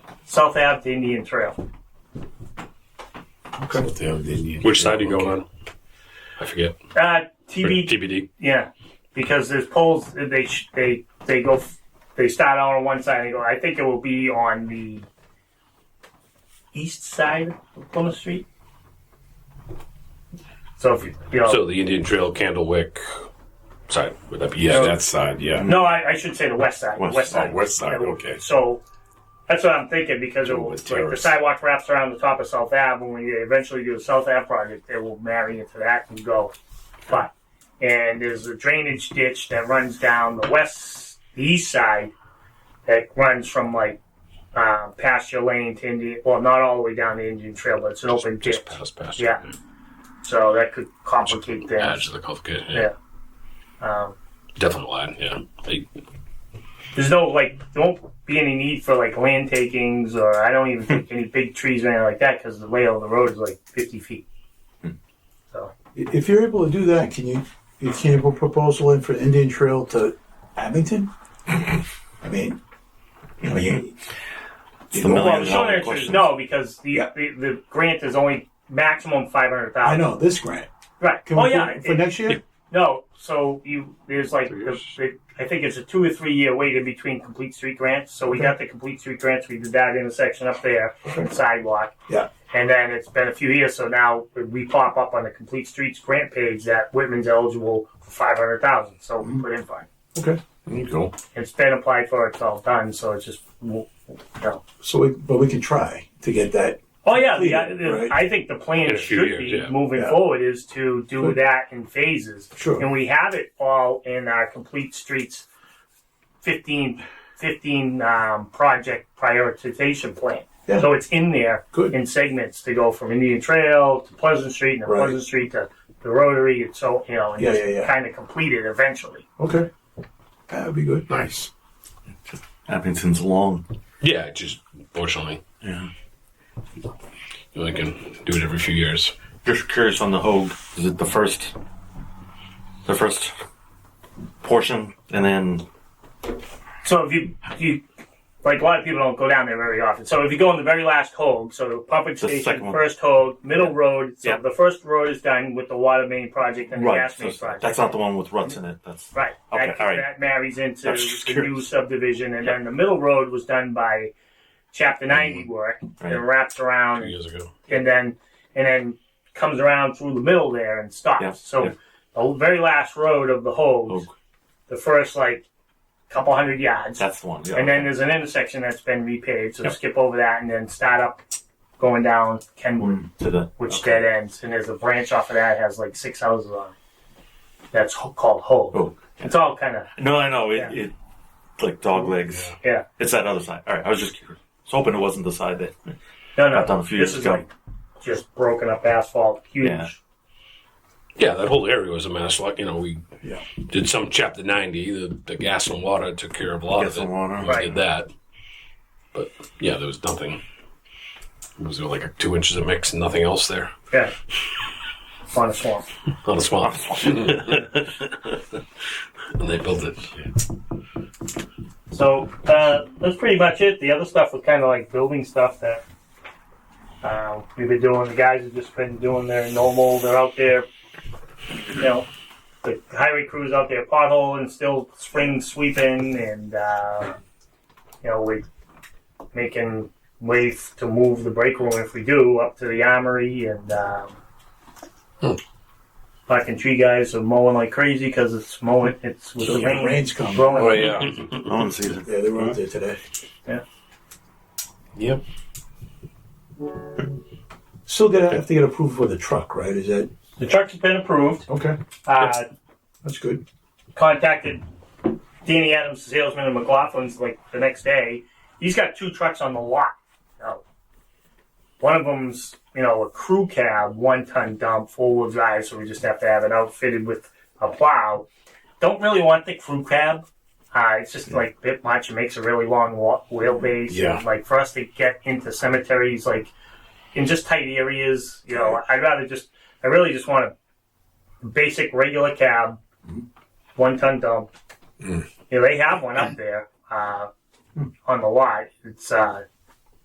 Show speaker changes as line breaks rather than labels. South Ave to Indian Trail.
So they have the Indian
Which side are you
Trail,
going
okay.
on? I forget.
Uh,
Or
TB,
TBD.
yeah, because there's poles. They sh- they they go. f- They start out on one side. And go. I think it will be on the east side of Plymouth Street. So if you, you know,
So the Indian Trail, Candlewick side. Would that be
Yeah,
east?
that side. Yeah.
no, I, I should say the west side.
West-
west
oh,
side.
west side, okay.
So that's what I'm thinking because it
Oh,
will,
with
like, the
terrace.
sidewalk wraps around the top of South Ave. When we eventually do the South Ave project, it will marry into that and go. But and there's a drainage ditch that runs down the west, the east side that runs from like uh, past your lane to Indian. Well, not all the way down the Indian Trail, but it's an open ditch.
Just past, past.
Yeah. So that could complicate
Yeah,
things.
just the complicated. Yeah.
Yeah. Um,
Definitely line. Yeah. They-
there's no like there won't be any need for like land takings or I don't even think any big trees or anything like that because the layout of the road is like 50 feet.
If you're able to do that, can you, you can you put a proposal in for Indian Trail to Abington? I mean, I mean,
It's
you know,
the
Well,
million
the short
dollar
answer is
question.
no because the,
Yeah.
the the grant is only maximum 500,000.
I know this grant.
Right.
Can
oh
we put
yeah.
it for
it-
next year?
no. So you there's like
Three
the,
years.
the, I think it's a two or three year wait in between complete street grants. So we
Okay.
got the complete street grants. We did that intersection up there, sidewalk.
Yeah.
And then it's been a few years, so now we pop up on the complete streets grant page that Whitman's eligible for five hundred thousand. So
Mm-hmm.
we put in five.
Okay.
There you go.
It's been applied for. It's all done. So it's just you know.
So, we, but we can try to get that.
Oh yeah, the,
Right.
I think the
In
plan
a few
should
years,
be
yeah.
moving
Yeah.
forward is to do
Good.
that in phases.
Sure.
And we have it all in our complete streets 15, 15 um, project prioritization plan.
Yeah.
So it's in there
Good.
in segments to go from Indian Trail to Pleasant Street and then
Right.
Pleasant Street to the Rotary and so you know and
Yeah,
just
yeah, yeah.
kind of complete it eventually.
Okay. That would be good.
Nice. Abington's long.
yeah. Just fortunately,
Yeah.
you only can do it every few years.
Just curious on the Hogue. Is it the first, the first portion, and then
So if you you like a lot of people don't go down there very often. So if you go on the very last hog, so the pumping
The second
station,
one.
first hog, middle road. So
Yeah.
the first road is done with the water main project and the
right?
gas
so
main project.
that's not the one with ruts in it. That's
Right.
Okay,
that,
all right.
that marries into
I was just
the new
curious.
subdivision, and
Yeah. Mm-hmm.
then the middle road was done by Chapter 90 work
Right.
and wraps around,
Two years ago.
and then and then comes around through the middle there and stops.
Yeah,
So
yeah.
the very last road of the hose,
Hogue.
the first like couple hundred yards,
That's the one. Yeah,
and then
okay.
there's an intersection that's been repaved. So skip over that and then start up going down Kenwood,
to the
which
Mm, okay.
dead ends, and there's a branch off of that has like six houses on. it. That's ho- called Hove.
Hogue.
It's all kind of
No, I know it.
Yeah.
it like dog legs.
yeah.
It's that other side. All right. I was just curious. I was hoping it wasn't the side that
No, no.
I've done a few
this
years
is
ago.
like just broken up asphalt, huge.
Yeah.
Yeah, that whole area was a mess. Like you know, we
Yeah.
did some chapter ninety. The, the gas and water took care of a lot
Gas
of it.
and water.
We
Right.
Did that, but yeah, there was nothing. It was like a two inches of mix and nothing else there
Yeah. On a swamp.
on a swamp. and they built it.
So uh, that's pretty much it. The other stuff was kind of like building stuff that uh, we've been doing. The guys have just been doing their normal. They're out there, you know, the highway crews out there potholing, still spring sweeping, and uh, you know we making way f- to move the break room if we do up to the armory and. Um,
Hmm.
Fucking tree guys are mowing like crazy because it's mowing. It's with
So
the
the
rain.
rain's coming.
blowing.
Oh yeah.
No one sees it.
Yeah, they were out there today.
yep.
Still gonna have to get approved for the truck, right? Is that
The truck's been approved.
okay?
Uh,
That's good.
contacted Danny Adams, the salesman of McLaughlin's, like the next day. He's got two trucks on the lot. Now, one of them's, you know, a crew cab, one ton dump, four wheel drive, so we just have to have it outfitted with a plow. Don't really want the crew cab. Uh, it's just like a bit much. It makes a really long wa- wheelbase.
Yeah.
And, like for us to get into cemeteries, like in just tight areas, you know, I'd rather just, I really just want a basic regular cab, one ton dump. You know, they have one up there uh, on the lot. It's uh,